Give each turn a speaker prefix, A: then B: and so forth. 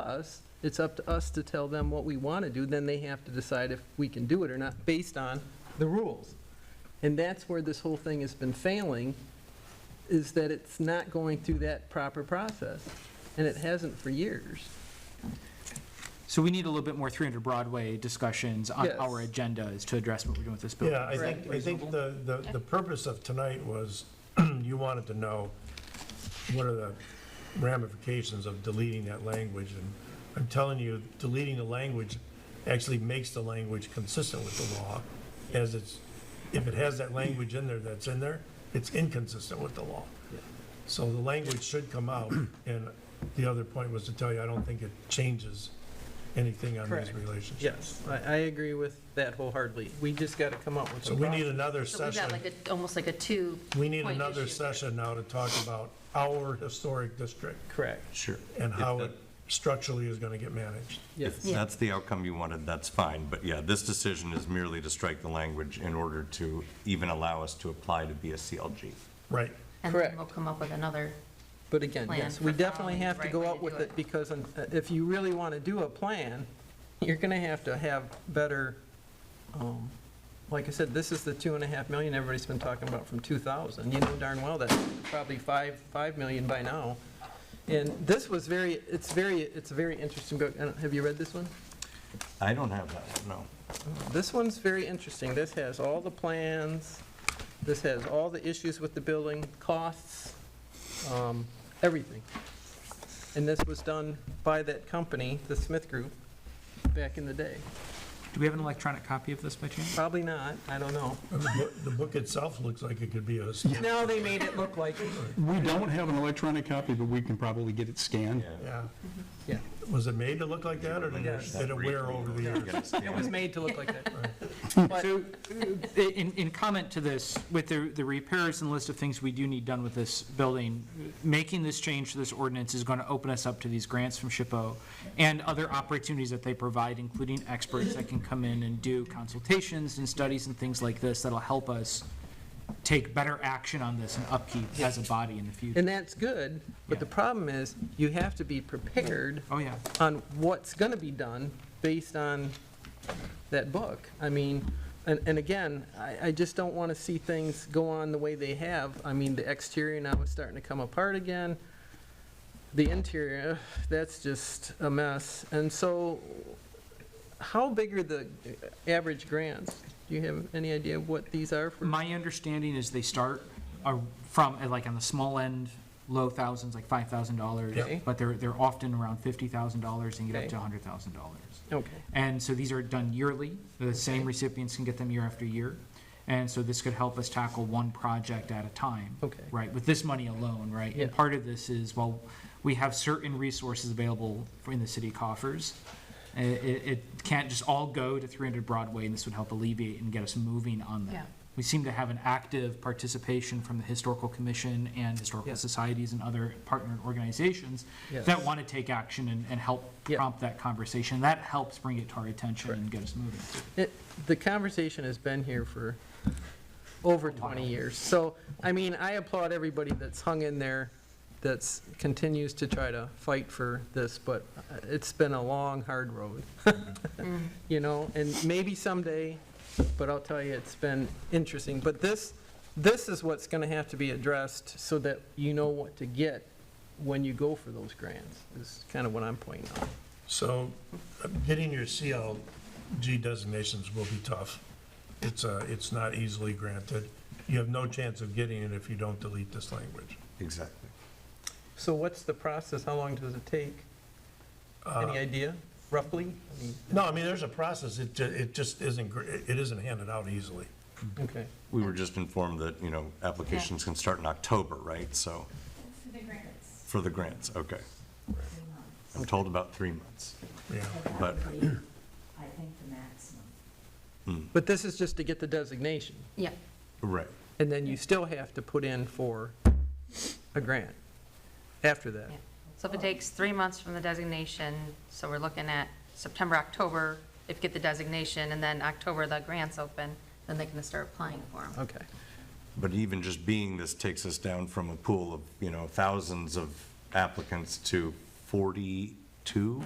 A: us, it's up to us to tell them what we want to do, then they have to decide if we can do it or not, based on the rules. And that's where this whole thing has been failing, is that it's not going through that proper process, and it hasn't for years.
B: So we need a little bit more 300 Broadway discussions on
A: Yes.
B: our agendas to address what we're doing with this building.
C: Yeah, I think, I think the, the, the purpose of tonight was, you wanted to know what are the ramifications of deleting that language, and I'm telling you, deleting the language actually makes the language consistent with the law, as it's, if it has that language in there that's in there, it's inconsistent with the law. So the language should come out, and the other point was to tell you, I don't think it changes anything on these
A: Correct.
C: relationships.
A: Yes, I, I agree with that wholeheartedly. We just got to come up with
C: So
A: a
C: we need
A: process.
C: another
D: So we've
C: session.
D: got like a, almost like a two.
C: We need
D: point
C: another
D: issue.
C: session now to talk about our historic district
A: Correct,
E: Sure.
C: and
E: If
C: how
E: that-
C: it structurally is going to get managed.
A: yes.
D: Yeah.
E: That's the outcome you wanted, that's fine, but yeah, this decision is merely to strike the language in order to even allow us to apply to be a CLG.
C: Right.
D: And then
A: Correct.
D: we'll come up with another,
A: But again,
D: plan
A: yes, we
D: for
A: definitely
D: following the
A: have to
D: right
A: go
D: way
A: out
D: to
A: with
D: do
A: it,
D: it.
A: because um, uh, if you really want to do a plan, you're going to have to have better, um, like I said, this is the two and a half million everybody's been talking about from 2000. You know darn well that's probably five, five million by now. And this was very, it's very, it's a very interesting book. I don't- Have you read this one?
E: I don't have that, no.
A: This one's very interesting. This has all the plans, this has all the issues with the building, costs, um, everything. And this was done by that company, the Smith Group, back in the day.
B: Do we have an electronic copy of this by chance?
A: Probably not, I don't know.
C: And The book- the book itself looks like it could be a, historic-
A: Now they made it look like,
F: We don't have an electronic copy, but we can probably get it scanned.
C: yeah.
A: yeah,
C: Was it made to look like that, or did
A: Yes.
C: it- did it wear over the years?
A: it was made to look like that.
B: So, uh, in, in comment to this, with the, the repairs and list of things we do need done with this building, making this change to this ordinance is going to open us up to these grants from SHPO and other opportunities that they provide, including experts that can come in and do consultations and studies and things like this that'll help us take better action on this and upkeep as a body in the future.
A: And that's good, but the problem is, you have to be prepared
B: Oh, yeah.
A: on what's going to be done based on that book. I mean, and, and again, I, I just don't want to see things go on the way they have. I mean, the exterior now is starting to come apart again. The interior, ugh, that's just a mess. And so, how big are the uh, average grants? Do you have any idea what these are for?
B: My understanding is they start uh, from, uh, like, on the small end, low thousands, like five thousand dollars.
A: Okay.
B: But they're, they're often around fifty thousand dollars and get up
A: Okay.
B: to hundred thousand dollars.
A: Okay,
B: And so these are done yearly, the same recipients can get them year after year. And so this could help us tackle one project at a time.
A: Okay.
B: Right, with this money alone, right? And
A: Yeah.
B: part of this is, well, we have certain resources available for- in the city coffers. I- i- It, it can't just all go to three hundred Broadway, and this would help alleviate and get us moving on that.
D: Yeah.
B: We seem to have an active participation from the Historical Commission and
A: Yeah.
B: historical societies and other partner organizations
A: Yes.
B: that want to take action and, and help
A: Yeah.
B: prompt that conversation. That helps bring it to our attention and get us moving.
A: It, the conversation has been here for over 20 years. So, I mean, I applaud everybody that's hung in there, that's, continues to try to fight for this, but uh, it's been a long, hard road. You know, and maybe someday, but I'll tell you, it's been interesting. But this, this is what's going to have to be addressed so that you know what to get when you go for those grants, is kind of what I'm pointing out.
C: So uh, getting your CLG designations will be tough. It's, uh, it's not easily granted. You have no chance of getting it if you don't delete this language.
E: Exactly.
A: So what's the process? How long does it take? Any idea, roughly? I mean,
C: No, I mean, there's a process, it, ju- it just isn't, gr- it isn't handed out easily.
A: Okay,
E: We were just informed that, you know, applications can start in October, right? So,
G: For the grants.
E: for the grants, okay. I'm told about three months,
C: Yeah,
E: but
G: I think the maximum.
A: but this is just to get the designation,
D: yeah,
E: Right.
A: and then you still have to put in for a grant after that.
D: yeah. So if it takes three months from the designation, so we're looking at September, October, if you get the designation, and then October the grants open, then they can start applying for them.
A: Okay,
E: But even just being this takes us down from a pool of, you know, thousands of applicants to 42 two